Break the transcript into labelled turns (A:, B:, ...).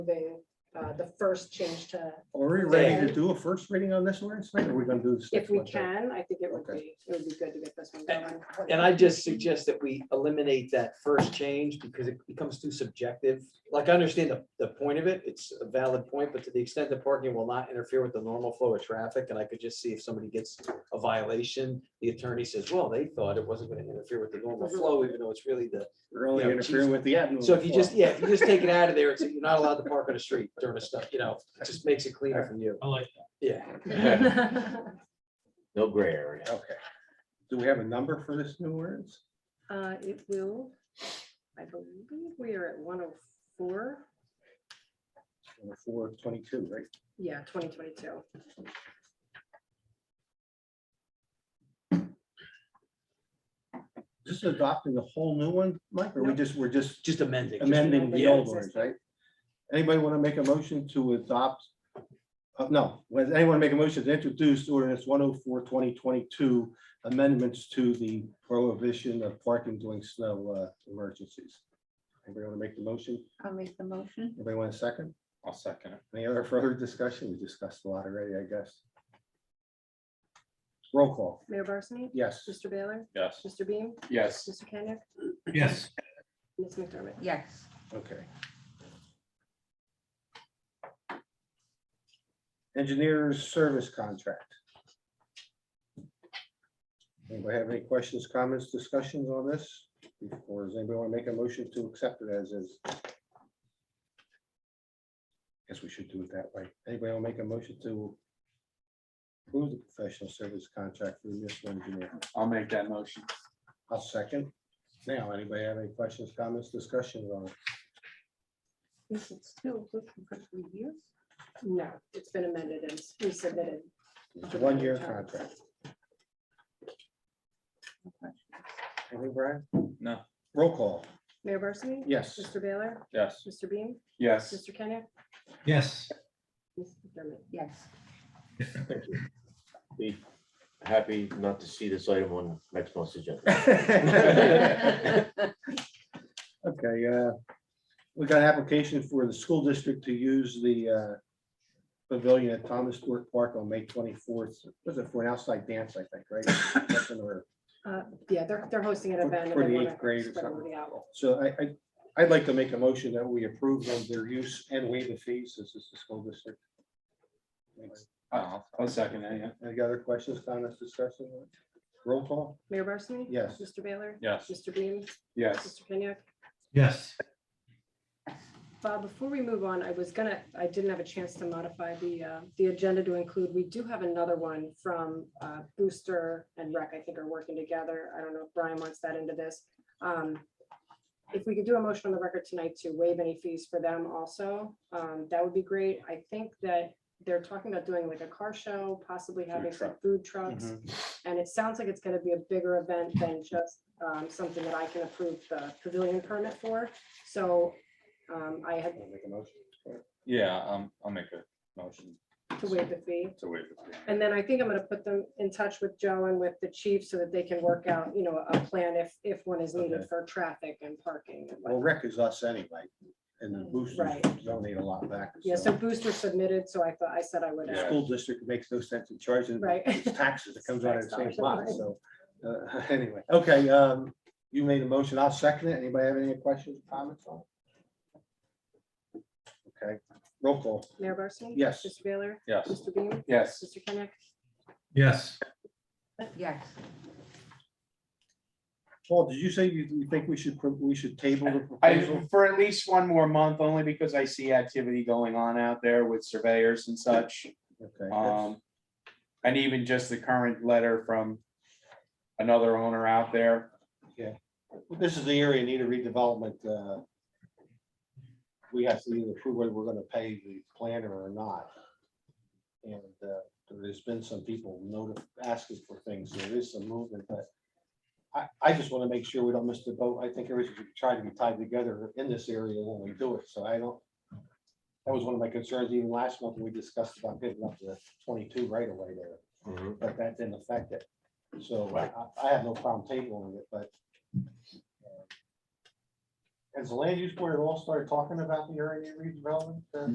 A: moving uh, the first change to,
B: Are we ready to do a first reading on this ordinance tonight, or are we gonna do this?
A: if
B: next
A: we
B: Monday?
A: can, I think it would
B: Okay.
A: be, it would be good to get this one going.
C: And I just suggest that we eliminate that first change because it becomes too subjective. Like, I understand the, the point of it, it's a valid point, but to the extent that parking will not interfere with the normal flow of traffic, and I could just see if somebody gets a violation, the attorney says, well, they thought it wasn't gonna interfere with the normal flow, even though it's really the,
B: We're only
C: Yeah,
B: interfering with the avenue.
C: so if you just, yeah, if you just take it out of there, it's, you're not allowed to park on the street during the stuff, you know, it just makes it cleaner for you.
D: I like
C: Yeah,
E: No gray area.
B: Okay. Do we have a number for this new ordinance?
A: Uh, It will, I believe we are at one oh four,
B: Four twenty-two, right?
A: yeah, twenty twenty-two.
B: Just adopting the whole new one, Mike, or we
A: No.
B: just, we're just
C: just amending. just-
B: amending the
A: amending
B: old
A: the
B: ones,
A: existing.
B: right? Anybody want to make a motion to adopt? Uh, No, does anyone make a motion to introduce ordinance 104 2022 amendments to the prohibition of parking during snow uh, emergencies? Anybody want to make the motion?
F: I'll make the motion.
B: Anybody want a second?
E: I'll second it.
B: Any other further discussion? We discussed a lot already, I guess. Roll call,
A: Mayor Barsney?
B: yes.
A: Mr. Baylor?
E: Yes.
A: Mr. Beam?
E: Yes.
A: Mr. Kenick?
D: that. Yes.
A: Ms. McDermott?
F: Yes,
B: Okay. Engineers service contract. Anybody have any questions, comments, discussions on this? Or does anybody want to make a motion to accept it as is? Guess we should do it that way. Anybody want to make a motion to approve the professional service contract for the municipal engineer?
E: I'll make that motion.
B: I'll second. Now, anybody have any questions, comments, discussions on it?
F: is it still good for three years?
A: No, it's been amended and resubmitted.
B: It's a one-year contract. Any, Brian?
E: No.
B: Roll call,
A: Mayor Barsney?
B: yes.
A: Mr. Baylor?
E: Yes.
A: Mr. Beam?
E: Yes.
A: Mr. Kenick?
D: Yes.
A: Ms. McDermott?
F: Yes.
G: happy not to see this item on next month's agenda.
B: Okay, uh, we got an application for the school district to use the uh, pavilion at Thomas Stewart Park on May twenty-fourth. Was it for an outside dance, I think, right? Something or-
A: Uh, Yeah, they're, they're hosting an
B: For-
A: event. and
B: for
A: they
B: the
A: wanna
B: eighth grade or
A: spread
B: something.
A: everybody out.
B: So I, I, I'd like to make a motion that we approve of their use and waive the fees. This is the school district.
E: I'll I'll second that, yeah.
B: Any other questions, comments, discussion? Roll call,
A: Mayor Barsney?
B: Yes.
A: Mr. Baylor?
E: Yes.
A: Mr. Beam?
E: Yes.
A: Mr. Kenyek?
D: Yes.
A: Bob, before we move on, I was gonna, I didn't have a chance to modify the, uh, the agenda to include, we do have another one from uh, Booster and Rec, I think are working together. I don't know if Brian wants that into this. Um, If we could do a motion on the record tonight to waive any fees for them also, um, that would be great. I think that they're talking about doing like a car show, possibly having some food
B: Mm-hmm.
A: trucks. And it sounds like it's gonna be a bigger event than just um, something that I can approve the pavilion permit for. So um, I had
B: Wanna make a motion?
E: Yeah, um, I'll make a motion
A: to waive the fee.
E: to waive the fee.
A: And then I think I'm gonna put them in touch with Joe and with the chief so that they can work out, you know, a plan if, if one is needed
B: Okay.
A: for traffic and parking. and
B: Well,
A: whatnot.
B: rec is us anyway, and the boosters
A: Right.
B: don't need a lot back.
A: Yeah, so Booster submitted, so I thought, I said I would.
B: The
A: uh,
B: School district makes no sense in charging
A: Right.
B: its taxes, it comes out of the same
A: Tax
B: pot,
A: dollars.
B: so, uh, anyway, okay, um, you made a motion, I'll second it, anybody have any questions, comments on? it? Okay, roll call,
A: Mayor Barsney?
B: Yes.
A: Mr. Baylor?
E: Yes.
A: Mr. Beam?
E: Yes.
A: Mr. Kenick?
D: Yes.
F: Yes.
B: Paul, did you say you, you think we should, pro- we should table the
H: I,
B: proposal?
H: for at least one more month, only because I see activity going on out there with surveyors and such.
B: Okay, that's-
H: Um, and even just the current letter from another owner out there.
B: This is the area in need of redevelopment, uh, we have to either approve whether we're gonna pay the planner or not. And, uh, there's been some people notif, asking for things, there is some movement, but I, I just wanna make sure we don't miss the boat, I think everything should try to be tied together in this area when we do it, so I don't. That was one of my concerns even last month, when we discussed about getting up to twenty-two right away there
D: Mm-hmm.
G: Mhm.
B: but that didn't affect it. So I, I- I have no problem tabling it, but uh, has the land use board at all started talking about the area redevelopment? uh,